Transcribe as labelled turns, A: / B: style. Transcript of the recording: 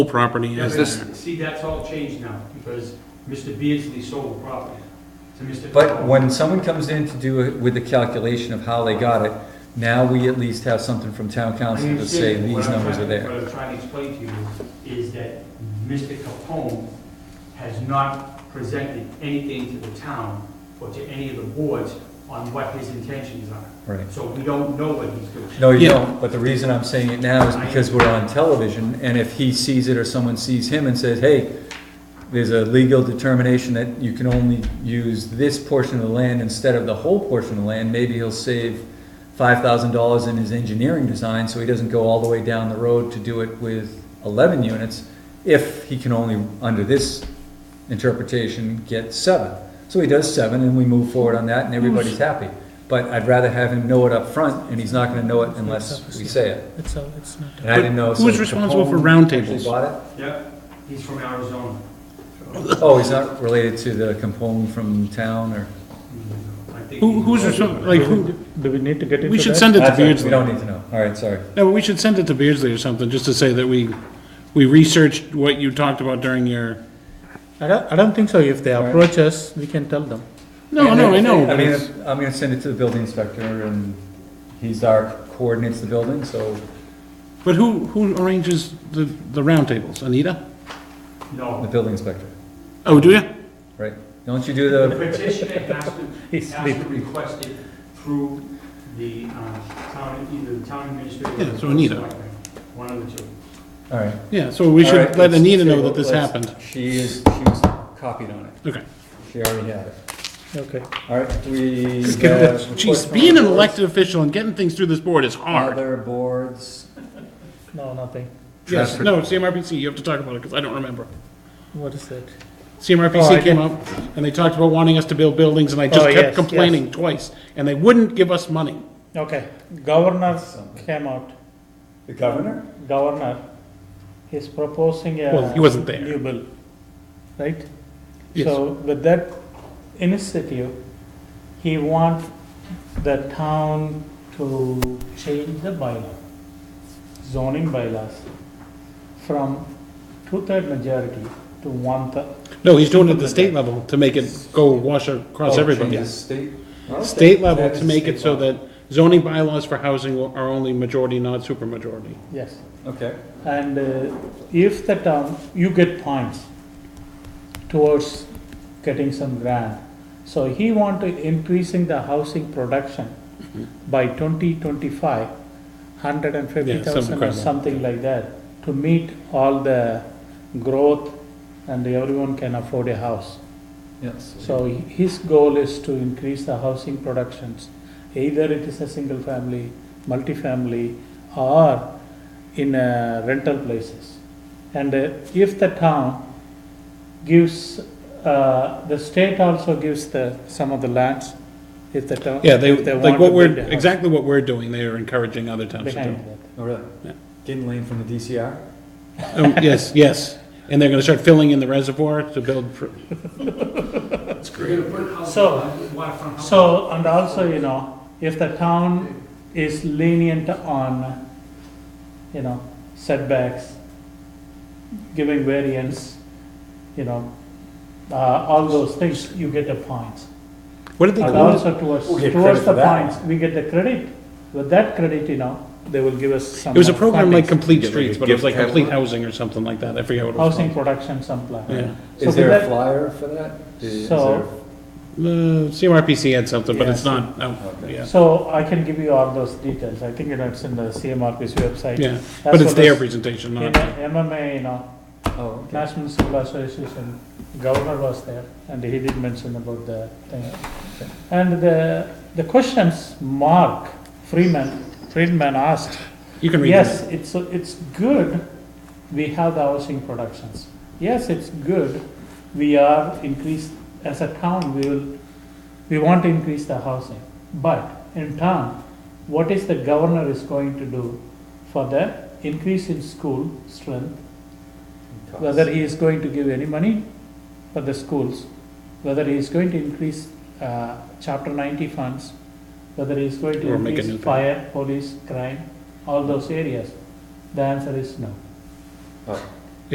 A: whole property
B: Yeah,
A: is
B: but
A: there.
B: See, that's all changed now, because Mr. Beardsley sold the property to Mr.
C: But
B: Powell.
C: when someone comes in to do it with the calculation of how they got it, now we at least have something from town
B: I
C: council to say
B: understand, but
C: these
B: what I'm
C: numbers are
B: trying-
C: there.
B: What I'm trying to explain to you is that Mr. Capone has not presented anything to the town or to any of the boards on what his intentions are.
C: Right.
B: So we don't know what he's doing.
C: No, you
A: Yeah.
C: don't, but the reason I'm saying it now is because we're on television, and if he sees it or someone sees him and says, hey, there's a legal determination that you can only use this portion of the land instead of the whole portion of the land, maybe he'll save five thousand dollars in his engineering design, so he doesn't go all the way down the road to do it with eleven units, if he can only, under this interpretation, get seven. So he does seven, and we move forward on that, and everybody's happy. But I'd rather have him know it up front, and he's not gonna know it unless we say it.
D: It's, uh, it's not.
C: And I didn't know. so
A: Who's responsible for
C: Capone
A: roundtables?
C: actually bought
B: Yep, he's from Arizona.
C: it? Oh, he's not related to the Capone from town, or?
B: I think
A: Who,
B: he's-
A: who's, respon- like, who,
D: Do we need to get into that?
A: we should send it to
C: That's all right, We
A: Beardsley.
C: don't need to know. All right, sorry.
A: No, we should send it to Beardsley or something, just to say that we, we researched what you talked about during your,
D: I don't, I don't think so. If they
C: All right.
D: approach us, we can tell them.
A: no, no, I know,
C: I
A: but
C: mean,
A: it's,
C: I'm gonna send it to the building inspector, and he's our, coordinates the building, so
A: but who, who arranges the, the roundtables? Anita?
C: the
B: No,
C: building inspector,
A: Oh, do you?
C: right? Don't you do
B: the
C: the,
B: petitioner has to,
D: He's
B: has to request it through the, um, town, either the town administrator. or
A: Yeah,
B: the
A: so Anita.
B: selectman, One of the two.
C: all right.
A: Yeah, so we
C: All right,
A: should let
C: let's
A: Anita know
C: table
A: that this
C: it.
A: happened.
C: She is, she was copied on it.
A: Okay.
C: She already had it.
D: Okay.
C: All right, we
D: Just give it
C: have. reports
A: Jeez,
C: from
A: being an
C: other boards.
A: elected official and getting things through this board is hard.
C: Other boards.
D: No, nothing.
A: Yes,
C: Traffic.
A: no, CMRPC, you have to talk about it, because I don't remember.
D: What is that? Oh, I
A: CMRPC came
D: didn't-
A: up, and they talked about wanting us to build buildings, and I just
D: Oh, yes,
A: kept
D: yes.
A: complaining twice, and they wouldn't give us money.
D: Okay. Governor came out.
C: The governor?
D: Governor is proposing a.
A: Well, he wasn't there.
D: New bill, right?
A: Yes.
D: So with that initiative, he wants the town to change the bylaw, zoning bylaws, from two-third majority to one-third.
A: No, he's doing it at the state level to make it go wash across
C: Oh,
A: everybody.
C: change the State?
A: State level
C: That is
A: to make
C: state
A: it so
C: level.
A: that zoning bylaws for housing will- are only majority, not supermajority.
D: Yes.
C: Okay,
D: And uh, if the town, you get points towards getting some grant. So he want to increasing the housing production by 2025, 150,000 or
A: crap like
D: something like that, to meet all the growth and everyone can afford a house.
C: yes.
D: So his goal is to increase the housing productions, either it is a single family, multifamily, or in uh, rental places. And uh, if the town gives, uh, the state also gives the, some of the lands, if the town.
A: Yeah, they,
D: if
A: like
D: want
A: what
D: to
A: we're,
D: build a house
A: exactly what we're doing, they are encouraging other towns to do.
D: Behind that,
C: Oh, really?
A: Yeah.
C: Getting lane from the DCR?
A: Um, Yes, yes, and they're gonna start filling in the reservoir to build, pr-
B: You're gonna put house-
D: So-
B: waterfront house-
D: So, and also, you know, if the town is lenient on, you know, setbacks, giving variance, you know, uh, all those things, you get the points.
A: what did they
D: And
A: call it?
D: also towards,
C: We'll get credit
D: towards the
C: for that.
D: points, we get the credit. With that credit, you know, they will give us some.
A: It was a
D: uh,
A: program like
D: funding,
A: Complete
E: Yeah, like a
A: Streets, but it was
E: gift
A: like Complete
E: catalog.
A: Housing or something like that, I forget what it was
D: Housing
A: called.
D: production, some plan.
A: Yeah,
D: So
C: Is
D: with
C: there a
D: that-
C: flyer for that? Is
D: So-
A: the CMRPC had something, but
D: Yeah.
A: it's not, out
C: Okay.
A: yeah,
D: So I can give you all those details. I think you know, it's in the CMRPC website.
A: yeah,
D: That's
A: but it's
D: what
A: their
D: this-
A: presentation,
D: In
A: not,
D: MMA, you know,
C: there- Oh, okay.
D: National Civil Association, governor was there, and he did mention about the thing. And the, the questions Mark Freeman, Friedman asked,
A: you can read
D: yes,
A: it.
D: it's, it's good, we have the housing productions. Yes, it's good, we are increased, as a town, we will, we want to increase the housing. But in town, what is the governor is going to do for the increase in school strength whether he is going to give any money for the schools, whether he is going to increase uh, Chapter 90 funds, whether he is going to
A: Or make a new
D: increase
A: thing.
D: fire, police, crime, all those areas, the answer is no.
C: Oh,